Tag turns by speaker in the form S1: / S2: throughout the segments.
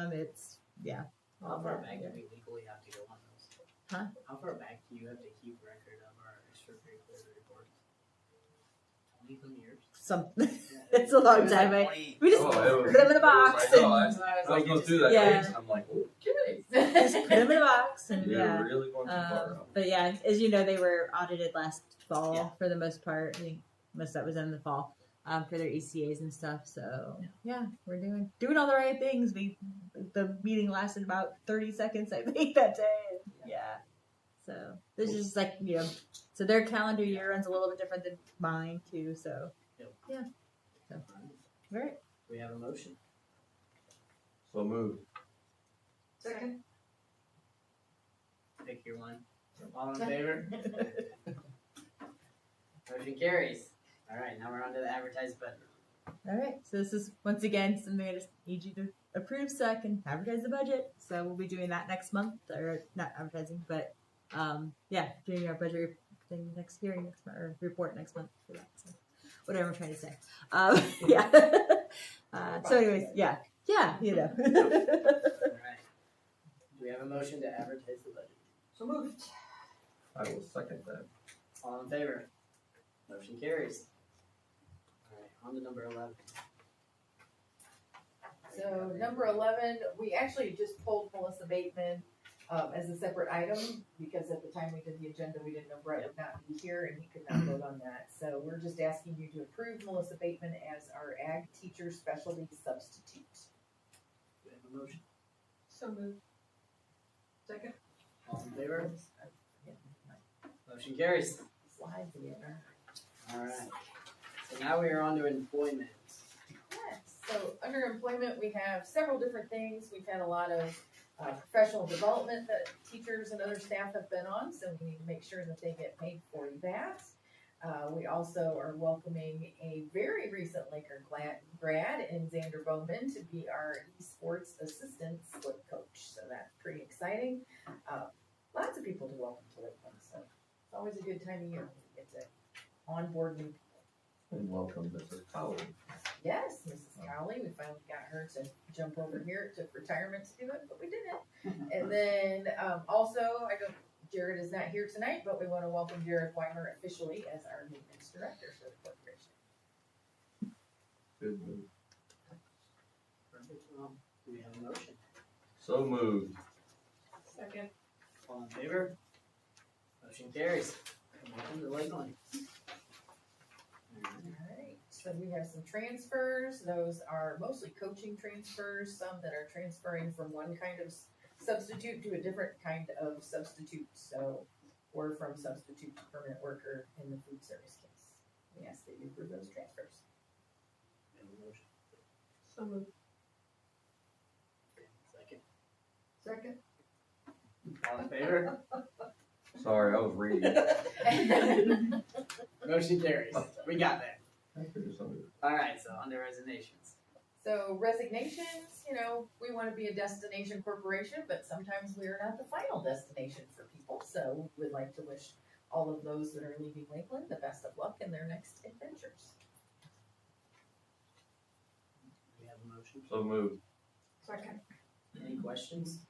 S1: Um, it's, yeah.
S2: How far back do we legally have to go on those?
S1: Huh?
S2: How far back do you have to keep record of our extracurricular reports? Twenty some years?
S1: Some, it's a long
S2: It was like
S1: time, right?
S2: 20
S1: we just
S3: Oh,
S1: put
S3: it was-
S1: them in a
S3: it was
S1: box
S3: like,
S1: and
S3: oh, I-
S2: That's why I was
S3: I was
S2: like,
S3: going
S2: you
S3: through
S2: just-
S3: that
S1: Yeah.
S3: phase. I'm like, okay,
S1: just put them in a box and
S3: you're
S1: yeah.
S3: really going too far
S1: Um,
S3: out.
S1: but yeah, as you know, they were audited last fall
S2: Yeah.
S1: for the most part. I think most of that was in the fall um, for their ECAs and stuff. So yeah. we're doing doing all the right things. We the meeting lasted about thirty seconds, I think, that day. Yeah. So this is just like you know, so their calendar year runs a little bit different than mine too. So
S2: Yep.
S1: yeah, very
S2: We have a motion.
S3: So move.
S4: Second.
S2: Pick your one. All in favor? Motion carries. All right, now we're on to the advertise button.
S1: all right. So this is once again something I just need you to approve so I can advertise the budget. So we'll be doing that next month, or not advertising, but um, yeah, doing our budget thing next hearing next month or report next month for that. So whatever I'm trying to say. Um, yeah. uh, so, anyways, yeah, yeah, you know.
S2: All right. Do we have a motion to advertise the budget?
S4: So moved.
S3: I will second that.
S2: All in favor? Motion carries. All right, on to number eleven.
S4: So number eleven, we actually just pulled Melissa Bateman um, as a separate item because at the time we did the agenda, we didn't know Brett would not be here and he could not vote on that. So we're just asking you to approve Melissa Bateman as our ag teacher specialty substitute.
S2: Do we have a motion?
S4: So moved. Second.
S2: All in favor? Motion carries.
S4: Slides in.
S2: All right. So now we are on to employment.
S4: Yes, so under employment, we have several different things. We've had a lot of uh, professional development that teachers and other staff have been on, so we need to make sure that they get paid for that. Uh, We also are welcoming a very recent Laker gla- grad in Xander Bowman to be our esports assistant slip coach, so that's pretty exciting. Uh, Lots of people to welcome to Lakeland, so it's always a good time of year when we get to onboard new
S3: And welcome, Mrs. Powell.
S4: Yes, Mrs. Cowley, we finally got her to jump over here. It took retirement to do it, but we did it. And then um, also, I don't, Jared is not here tonight, but we want to welcome Jared Weimer officially as our maintenance director for the corporation.
S3: Good move.
S2: Perfect. Well, Do we have a motion?
S3: So moved.
S4: Second.
S2: All in favor? Motion carries. Welcome to Lakeland. All right.
S4: Alright, so we have some transfers, those are mostly coaching transfers, some that are transferring from one kind of s- substitute to a different kind of substitute, so we're from substitute to permanent worker in the food service case. We ask that you approve those transfers.
S2: We have a motion.
S4: So moved.
S2: Second.
S4: Second.
S2: All in favor?
S3: Sorry, I was reading.
S2: Motion carries. We got that.
S3: I figured somebody would-
S2: All right, so on to resignations.
S4: So resignations, you know, we want to be a destination corporation, but sometimes we are not the final destination for people. So we'd like to wish all of those that are leaving Lakeland the best of luck in their next adventures.
S2: Do we have a motion?
S3: So moved.
S4: Second.
S2: Any questions?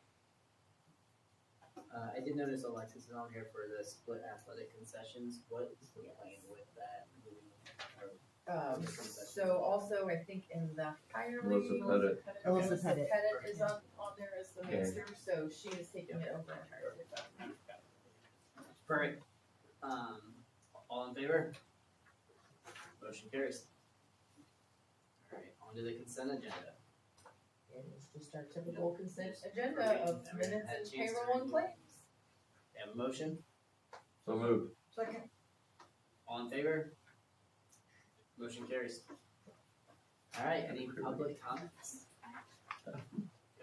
S2: Uh, I did notice Alexis is on here for the split athletic concessions. What is the plan with that? Do we- or-
S4: Um, so also, I think in the higher
S3: Melissa
S4: league,
S3: Pettit.
S1: Melissa Pettit.
S4: is on, on there as the
S3: Okay.
S4: master, so she is taking it over entirely.
S2: Perfect. Um, all in favor? Motion carries. All right, on to the consent agenda.
S4: And it's just our typical consent agenda
S2: Perfect.
S4: of
S2: Never
S4: minutes
S2: had a
S4: and
S2: chance to
S4: payroll and
S2: read.
S4: claims.
S2: We Have a motion?
S3: So moved.
S4: Second.
S2: All in favor? Motion carries. All right, any public comments? Go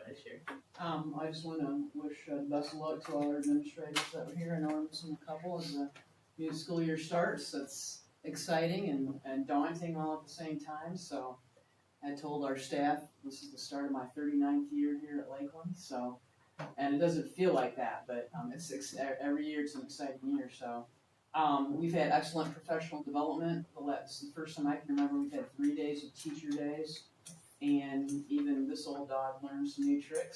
S2: ahead, Sherry.
S5: Um, I just wanna wish uh, best of luck to all our administrators that were here and our missing a couple as the new school year starts. That's exciting and, and daunting all at the same time, so I told our staff, this is the start of my 39th year here at Lakeland, so, and it doesn't feel like that, but, um, it's, ex- e- every year it's an exciting year, so. Um, we've had excellent professional development. The la- This is the first time I can remember we've had three days of teacher days. And even this old dog learned some new tricks